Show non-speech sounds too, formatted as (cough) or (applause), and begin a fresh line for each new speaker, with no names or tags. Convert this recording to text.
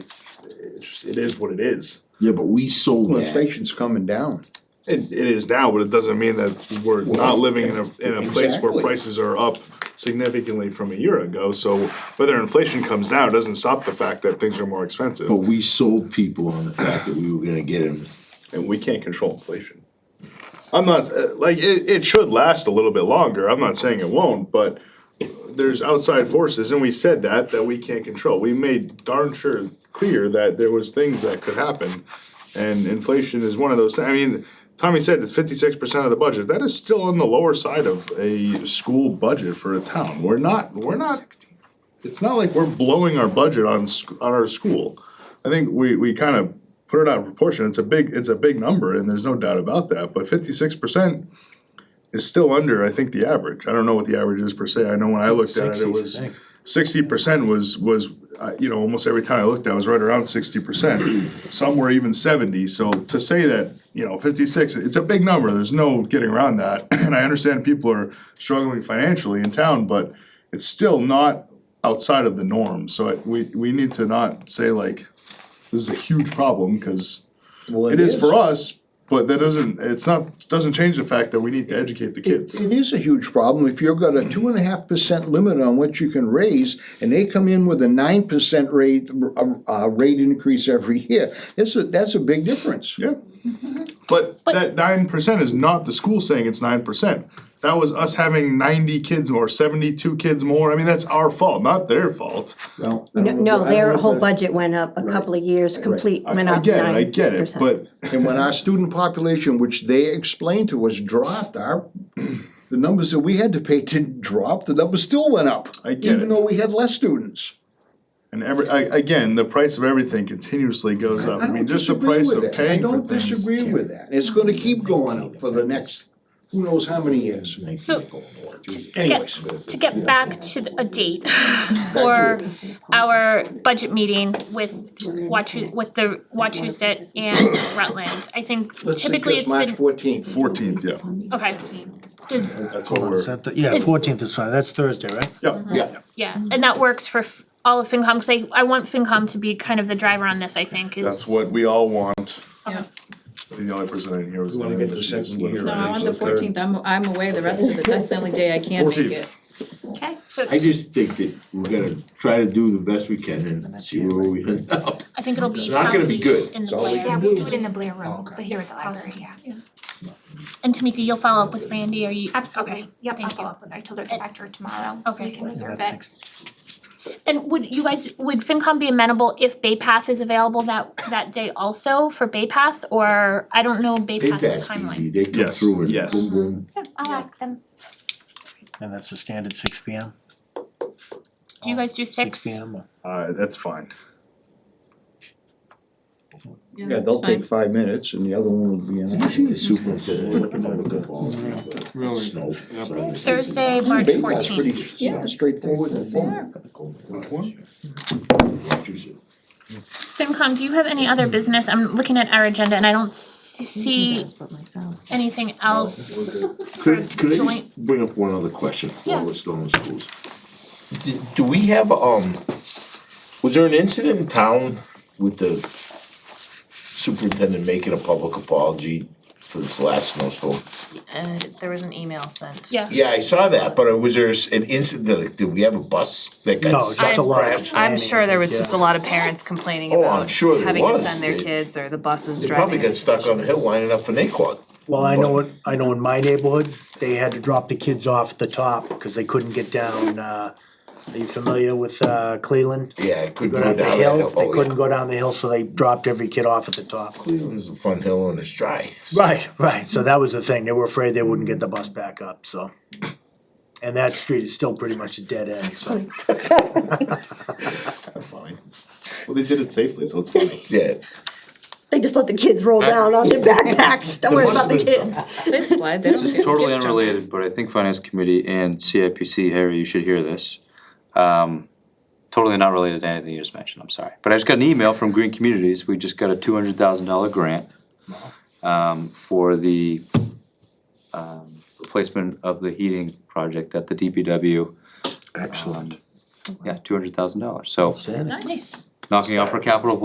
It's just, it is what it is.
Yeah, but we sold that.
Inflation's coming down.
It, it is now, but it doesn't mean that we're not living in a, in a place where
Exactly.
prices are up significantly from a year ago. So whether inflation comes down, it doesn't stop the fact that things are more expensive.
But we sold people on the fact that we were gonna get them.
and we can't control inflation. I'm not, uh, like, it, it should last a little bit longer, I'm not saying it won't, but there's outside forces, and we said that, that we can't control. We made darn sure clear that there was things that could happen, and inflation is one of those, thi- I mean, Tommy said it's fifty-six percent of the budget, that is still on the lower side of a school budget for a town, we're not, we're not it's not like we're blowing our budget on sc- on our school. I think we we kind of put it out of proportion. It's a big it's a big number, and there's no doubt about that. But fifty six percent is still under, I think, the average. I don't know what the average is per se. I know when I looked at it, it
60s, I
was
think.
sixty percent was was uh, you know almost every time I looked, at it was right around sixty percent.
(clears throat)
Some were even seventy. So to say that you know fifty six, it's a big number. There's no getting around that. (clears throat) And I understand people are struggling financially in town, but it's still not outside of the norm. So it, we we need to not say like this is a huge problem because
Well,
it is for us, but that doesn't it's not doesn't change the fact that we need to educate the kids.
It is a huge problem. If you've got a two and a half percent limit on what you can raise, and they come in with a nine percent rate, uh, uh, rate increase every year, that's a, that's a big difference. (laughs)
Yeah. But that nine percent is not the school saying it's nine percent. That was us having ninety kids more, seventy-two kids more. I mean, that's our fault, not their fault.
No,
No, no, their whole budget went up a couple of years, complete,
I
went
I
up
get it, I
nine
get it,
percent.
but
And when our student population, which they explained to us, dropped, our, the numbers that we had to pay didn't drop, the numbers still went up.
I get
Even
it.
though we had less students.
and every, I, again, the price of everything continuously goes up.
I
I mean,
don't
just the
disagree
price
with
of
that. I
paying for
don't
things.
disagree with that. It's gonna keep going up for the next, who knows how many years.
So, get,
Anyways,
to get back to the- a date (laughs) for our budget meeting with Wachu, with the Wachusett and Rutland, I think
let's think
typically
this
it's
March
been,
fourteenth.
Fourteenth, yeah,
okay. Does,
that's what
Is
we're,
that the, yeah,
Is-
fourteenth is fine, that's Thursday, right?
yeah,
Yeah,
yeah, and that works for f- all of FinCom, cause I, I want FinCom to be kind of the driver on this, I think, is.
that's what we all want.
Yeah.
The only person I didn't hear was.
You wanna
Lynn,
get the
she just
second year.
No,
literally-
Right,
I'm on
so
the
third.
fourteenth, I'm, I'm away the rest of it, that's the only day I can make it.
14th.
Okay.
So
I just think that we're gonna try to do the best we can and see where we end up.
I think it'll be.
It's not gonna be
probably
good.
In the
all we
Blair.
can
Yeah, we'll do it in the Blair Room, but here at the library, yeah.
And Tamika, you'll follow up with Randy, are you?
Absolutely, yep, I'll
thank
follow
you.
up with, I told her to come back to her tomorrow, so we
Okay.
can reserve
That's
it.
six.
And would you guys, would FinCom be amenable if Bay Path is available that, that day also for Bay Path? Or, I don't know Bay
They pass
Path's timeline.
easy, they come
Yes,
through and
yes.
boom, boom.
Yeah, I'll ask them.
And that's the standard six P M,
Do you guys do
six
six?
P M.
Uh, that's fine.
yeah, they'll take five minutes and the other one will be an hour.
Actually, the superintendent. Really? Snow.
Thursday, March
Big one's pretty
fourteenth.
s- straightforward and fun.
Which one?
FinCom, do you have any other business? I'm looking at our agenda and I don't s- see
But myself.
anything else.
Could, could I
Joint.
just bring up one other question
Yeah.
while we're still in schools? Do, do we have, um, was there an incident in town with the superintendent making a public apology for this last snowstorm?
Uh, There was an email sent.
Yeah.
Yeah, I saw that, but uh, was there s- an incident, like, did we have a bus that got?
No, just a lot of.
I'm sure there was just a
Yeah.
lot of parents complaining
Oh, I'm
about
sure there
having to
was.
send their
They-
kids or the buses
They
driving.
probably got stuck on the hill lining up for Naquan.
Well, I know, in- I know in my neighborhood, they had to drop the kids off at the top because they couldn't get down, uh, are you familiar with, uh, Cleveland?
Yeah, it couldn't
Go
go
down the
down that
hill,
hill.
they
Oh, yeah.
couldn't go down the hill, so they dropped every kid off at the top.
Cleveland's a fun hill and it's dry.
Right, right, so that was the thing, they were afraid they wouldn't get the bus back up, so. And that street is still pretty much a dead end, so.
Funny. Well, they did it safely, so it's funny.
Yeah.
They just let the kids roll down on their backpacks, don't worry about the
must've been
kids.
They slide, they don't
This
care.
is totally
Kids don't-
unrelated, but I think Finance Committee and CIPC, Harry, you should hear this. Um, Totally not related to anything you just mentioned, I'm sorry. But I just got an email from Green Communities, we just got a two hundred thousand dollar grant um, for the um, replacement of the heating project at the DPW. Excellent. Yeah, two hundred thousand dollars, so
Nice.
knocking off our capital